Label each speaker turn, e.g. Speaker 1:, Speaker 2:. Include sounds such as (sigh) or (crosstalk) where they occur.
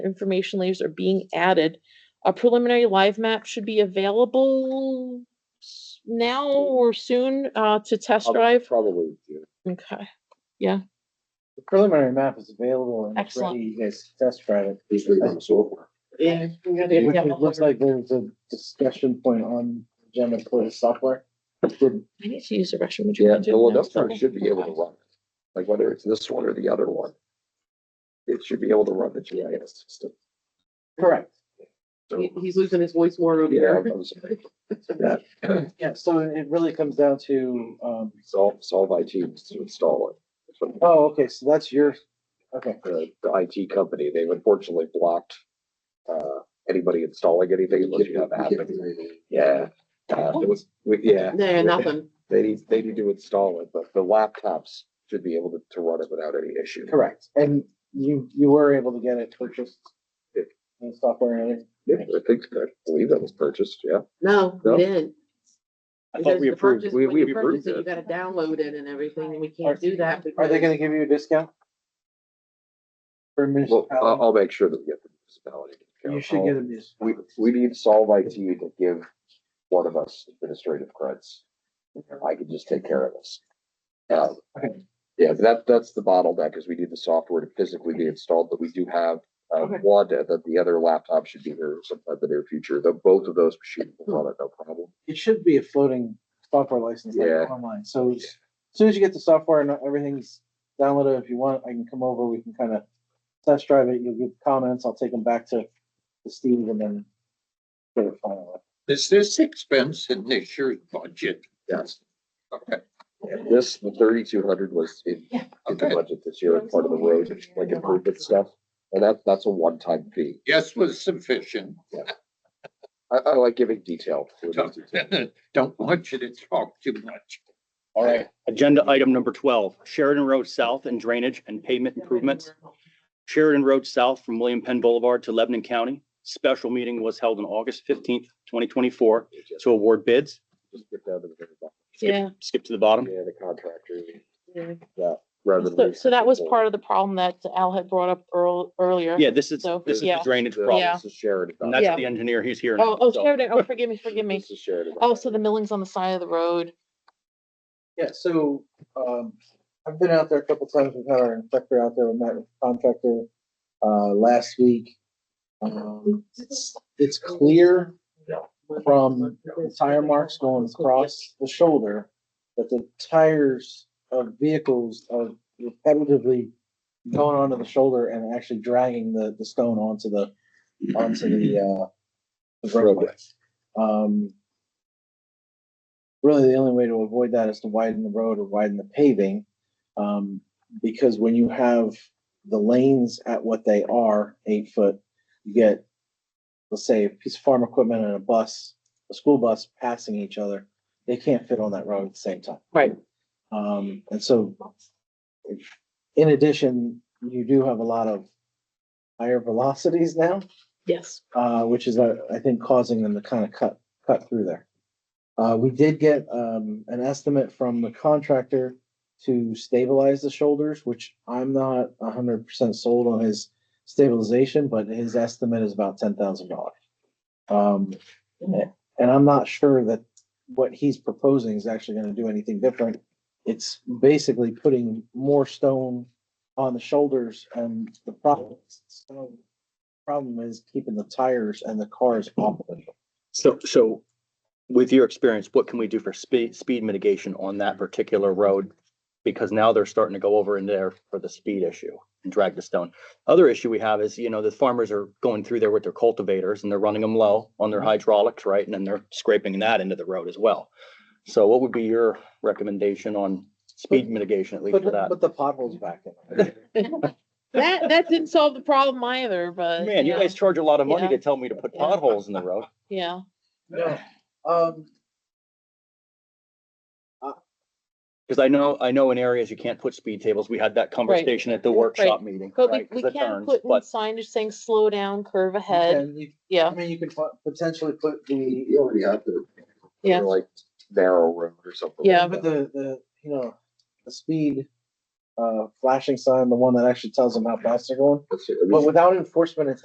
Speaker 1: information layers are being added. A preliminary live map should be available s- now or soon uh, to test
Speaker 2: Prob-
Speaker 1: drive.
Speaker 2: Probably. do.
Speaker 1: Okay,
Speaker 3: The preliminary map is available and it's
Speaker 1: Excellent.
Speaker 3: ready, you guys can test drive it.
Speaker 2: These are the software.
Speaker 3: Yeah.
Speaker 1: get
Speaker 3: It
Speaker 1: the-
Speaker 3: looks like there's a discussion point on agenda for the software. Did-
Speaker 1: I need to use the restroom. Would you
Speaker 2: Yeah,
Speaker 1: mind doing
Speaker 2: well,
Speaker 1: that?
Speaker 2: that's what it should be able to run, like whether it's this one or the other one. It should be able to run the GIS system.
Speaker 3: Correct,
Speaker 2: So,
Speaker 4: He- He's losing his voice more over
Speaker 2: yeah,
Speaker 4: there.
Speaker 2: that was- that
Speaker 3: yeah, so it really comes down to, um,
Speaker 2: solve, solve IT was to install it. That's what
Speaker 3: oh, okay, so that's your, okay,
Speaker 2: The, the IT company, they've unfortunately blocked, uh, anybody installing anything unless you have app. Yeah, uh, it was, we- yeah.
Speaker 4: No, nothing.
Speaker 2: They need, they need to install it, but the laptops should be able to, to run it without any issue.
Speaker 3: correct, and you, you were able to get it purchased.
Speaker 2: Yeah.
Speaker 3: The software and everything.
Speaker 2: Yeah, I think, I believe that was purchased, yeah.
Speaker 4: No,
Speaker 2: No?
Speaker 4: we didn't.
Speaker 3: I
Speaker 4: Because
Speaker 3: thought we
Speaker 4: the
Speaker 3: approved.
Speaker 4: purchase-
Speaker 2: We-
Speaker 4: when
Speaker 2: we
Speaker 4: you
Speaker 2: approved
Speaker 4: purchase it, You gotta download it and everything, and we can't do that
Speaker 3: Are they
Speaker 4: because
Speaker 3: gonna give you a discount? For
Speaker 2: Well, I'll,
Speaker 3: municipality,
Speaker 2: I'll make sure that we get the municipality. to
Speaker 3: you should
Speaker 2: count.
Speaker 3: get a municipality.
Speaker 2: We, we need Solve IT to give one of us administrative creds. I can just take care of this. Um,
Speaker 3: Okay.
Speaker 2: Yeah, that, that's the bottleneck, is we need the software to physically be installed, but we do have uh,
Speaker 3: Okay.
Speaker 2: one, and then the other laptop should be here sometime in the near future, though both of those machines
Speaker 4: Hmm.
Speaker 2: will run it, no problem.
Speaker 3: it should be a floating software license like
Speaker 2: Yeah.
Speaker 3: online. So as soon as you get the software and everything's downloaded, if you want, I can come over. We can kind of test drive it. You'll give comments. I'll take them back to, to Steve and then get it finalized.
Speaker 5: Is this expense in this year's budget?
Speaker 2: Yes.
Speaker 5: Okay.
Speaker 2: And This, the thirty-two hundred was in,
Speaker 4: Yeah.
Speaker 2: in the budget this year, part of the road, like improvement stuff, and that, that's a one-time fee.
Speaker 5: Yes was sufficient.
Speaker 2: I, I like giving detail.
Speaker 5: (laughs) Don't want you to talk too much.
Speaker 6: All right, agenda item number twelve, Sheridan Road South and drainage and pavement improvements. Sheridan Road South from William Penn Boulevard to Lebanon County. Special meeting was held on August fifteenth, twenty twenty-four to award bids.
Speaker 2: Just get down to the very bottom.
Speaker 1: Yeah.
Speaker 6: Skip to the bottom.
Speaker 2: Yeah, the contractor,
Speaker 4: Yeah.
Speaker 2: that, rather
Speaker 1: So,
Speaker 2: than.
Speaker 1: so that was part of the problem that Al had brought up earl- earlier.
Speaker 6: Yeah, this is,
Speaker 1: So,
Speaker 6: this is the
Speaker 1: yeah.
Speaker 6: drainage
Speaker 2: The-
Speaker 6: problem.
Speaker 1: Yeah.
Speaker 2: This is Sheridan.
Speaker 6: And
Speaker 1: Yeah.
Speaker 6: that's the engineer, he's here.
Speaker 1: Oh, oh,
Speaker 6: So,
Speaker 1: Sheridan,
Speaker 6: (laughs)
Speaker 1: oh, forgive me, forgive me.
Speaker 2: This is Sheridan.
Speaker 1: Oh, so the milling's on the side of the
Speaker 6: (laughs)
Speaker 1: road.
Speaker 3: Yeah, so, um, I've been out there a couple times, we've had our inspector out there, we met with the contractor, uh, last week. Um, it's, it's clear from the tire marks going across the shoulder that the tires of vehicles are repetitively going onto the shoulder and actually dragging the, the stone onto the, onto the, uh, the roadway. Um, really the only way to avoid that is to widen the road or widen the paving. Um, because when you have the lanes at what they are, eight foot, you get, let's say, a piece of farm equipment and a bus, a school bus passing each other. They can't fit on that road at the same time.
Speaker 4: Right.
Speaker 3: Um, and so in addition, you do have a lot of higher velocities now
Speaker 1: Yes.
Speaker 3: uh, which is, uh, I think, causing them to kind of cut, cut through there. Uh, we did get, um, an estimate from the contractor to stabilize the shoulders, which I'm not hundred percent sold on his stabilization, but his estimate is about ten thousand dollars. Um, and I'm not sure that what he's proposing is actually gonna do anything different. It's basically putting more stone on the shoulders and the problem, so problem is keeping the tires and the cars off of it.
Speaker 6: so, so with your experience, what can we do for speed, speed mitigation on that particular road? Because now they're starting to go over in there for the speed issue and drag the stone. Other issue we have is, you know, the farmers are going through there with their cultivators and they're running them low on
Speaker 1: Mm-hmm.
Speaker 6: their hydraulics, right? And then they're scraping that into the road as well. So what would be your recommendation on speed mitigation, at least
Speaker 3: Put
Speaker 6: for
Speaker 3: the,
Speaker 6: that?
Speaker 3: put the potholes back in.
Speaker 1: That, that didn't solve the problem either, but.
Speaker 6: Man, you
Speaker 1: yeah,
Speaker 6: guys charge a lot of money
Speaker 1: Yeah.
Speaker 6: to tell me to put
Speaker 1: Yeah.
Speaker 6: potholes in the road.
Speaker 1: Yeah.
Speaker 3: No, um,
Speaker 6: Because I know, I know in areas you can't put speed tables. We had that conversation at the
Speaker 1: Right.
Speaker 6: workshop meeting.
Speaker 1: But we,
Speaker 6: right, 'cause
Speaker 1: we
Speaker 6: of
Speaker 1: can
Speaker 6: turns,
Speaker 1: put in
Speaker 6: but-
Speaker 1: signage saying slow down, curve ahead.
Speaker 3: and you- I
Speaker 1: Yeah,
Speaker 3: mean, you could pot- potentially put the,
Speaker 2: You already have the.
Speaker 1: Yeah.
Speaker 2: Like narrow road or something.
Speaker 1: Yeah,
Speaker 3: put the, the, you know, the speed, uh, flashing sign, the one that actually tells them how fast they're going.
Speaker 2: Let's see, I mean,
Speaker 3: But without enforcement, it's